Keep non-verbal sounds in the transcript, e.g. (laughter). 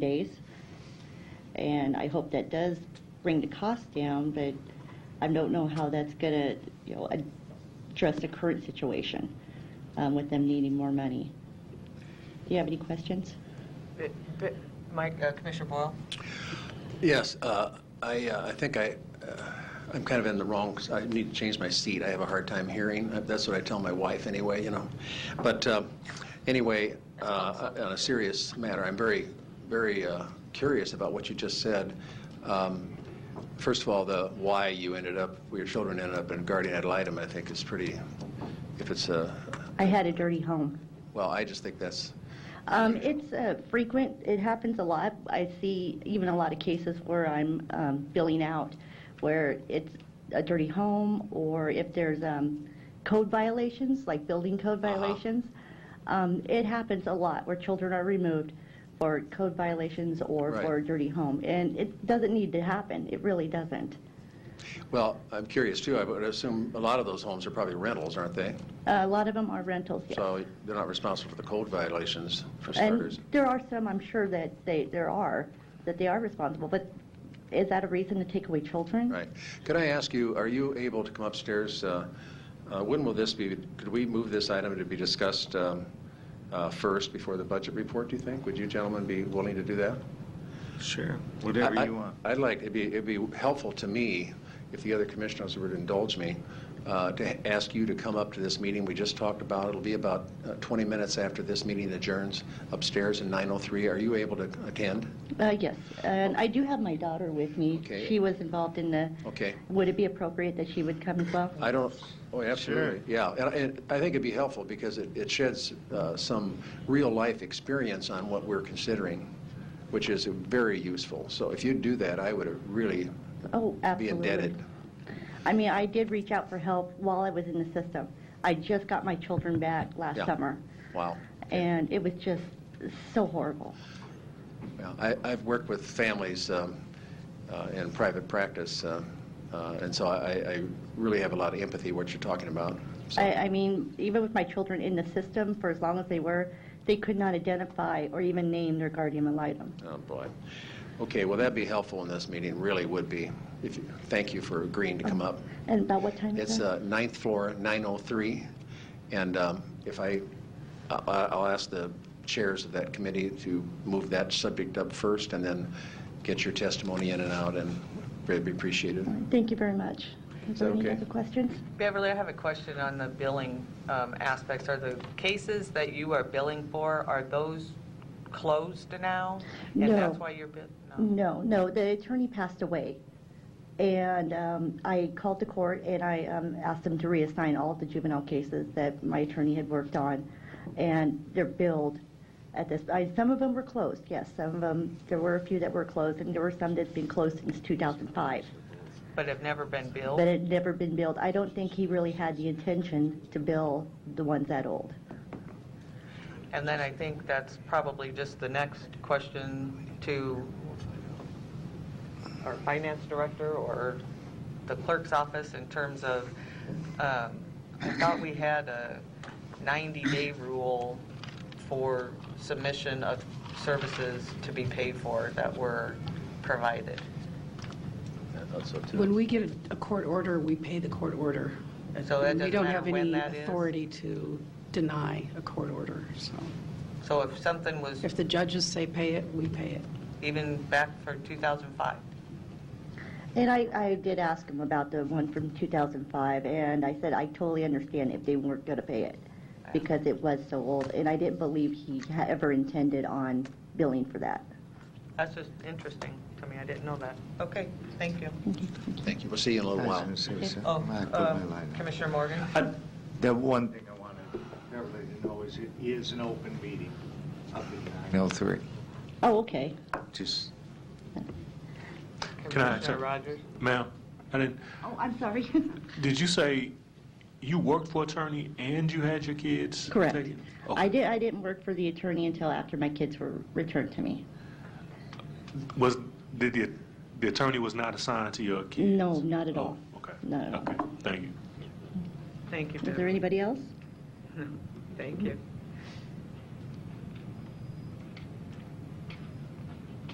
days. And I hope that does bring the cost down, but I don't know how that's going to, you know, address the current situation um, with them needing more money. Do you have any questions? But- but, Mike, uh, Commissioner Boyle? Yes, uh, I uh, I think I, uh, I'm kind of in the wrong, I need to change my seat. I have a hard time hearing. Uh, That's what I tell my wife anyway, you know. But uh, anyway, uh, on a serious matter, I'm very, very uh, curious about what you just said. Um, First of all, the why you ended up, your children ended up in guardian ad litem, I think is pretty, if it's a, I had a dirty home. well, I just think that's, Um, it's uh, frequent. It happens a lot. I see even a lot of cases where I'm um, billing out, where it's a dirty home, or if there's um, code violations, like building code Uh-huh. violations. Um, it happens a lot where children are removed for code violations or Right. for a dirty home, and it doesn't need to happen. It really doesn't. well, I'm curious too. I would assume a lot of those homes are probably rentals, aren't they? Uh, a lot of them are rentals. Yes. So they're not responsible for the code violations, for starters. And there are some, I'm sure, that they, there are, that they are responsible, but is that a reason to take away children? Right. Could I ask you, are you able to come upstairs? uh, uh, When will this be, could we move this item to be discussed um, uh, first before the budget report, do you think? Would you gentlemen be willing to do that? Sure, whatever I- you want. I'd like, it'd be, it'd be helpful to me, if the other commissioners would indulge me, uh, to ask you to come up to this meeting we just talked about. It'll be about uh, 20 minutes after this meeting adjourns upstairs in 9:03. Are you able to attend? Uh, yes, and I do have my daughter with me. Okay. She was involved in the, Okay. would it be appropriate that she would come as well? I don't, oh, absolutely, yeah. And- And I think it'd be helpful because it it sheds uh, some real-life experience on what we're considering, which is very useful. So if you do that, I would really Oh, be absolutely. indebted. I mean, I did reach out for help while I was in the system. I just got my children back last Yeah. summer, Wow. and it was just so horrible. Yeah, I- I've worked with families um, uh, in private practice, um, uh, and so I I really have a lot of empathy what you're talking about. So- I, I mean, even with my children in the system for as long as they were, they could not identify or even name their guardian ad litem. Oh, boy. Okay, well, that'd be helpful in this meeting, really would be. If you- Thank you for agreeing to come up. And about what time is It's that? uh, ninth floor, 903, and um, if I, I- I'll ask the chairs of that committee to move that subject up first, and then get your testimony in and out, and very appreciated. Thank you very much. Is Is there that any okay? other questions? Beverly, I have a question on the billing um, aspects. Are the cases that you are billing for, are those closed now? No. And that's why you're, bid- no? No, no, the attorney passed away. And um, I called the court and I um, asked them to reassign all of the juvenile cases that my attorney had worked on. And they're billed at this, I, some of them were closed, yes, some of them, there were a few that were closed and there were some that's been closed since 2005. But have never been But billed? it had never been billed. I don't think he really had the intention to bill the ones that old. And then I think that's probably just the next question to our finance director or the clerk's office in terms of, um, I thought we had a 90-day rule for submission of services to be paid for that were provided. I thought so, too. When we get a- a court order, we pay the court order. And so that We doesn't don't matter have when any that is? authority to deny a court order, so So if something was if the judges say pay it, we pay it. even back for 2005, And I, I did ask him about the one from 2005, and I said, I totally understand if they weren't going to pay it, because it was so old, and I didn't believe he ha- ever intended on billing for that. that's just interesting to me, I didn't know that. Okay, thank you. Thank you, we'll see you in a little while. Oh, Wow. um, Commissioner Morgan? The one thing I wanted everybody to know is it is an open meeting up at 9:03. Oh, okay. Just, Can I Commissioner say- Rogers? Ma'am, I didn't, Oh, I'm sorry. (laughs) did you say you worked for attorney and you had your kids? Correct. taken? I Okay. did, I didn't work for the attorney until after my kids were returned to me. Was, did the, the attorney was not assigned to your kids? No, not at all. Oh, Okay. Not at all. Okay, thank you. Thank you, Is there Beverly. anybody else? Thank you.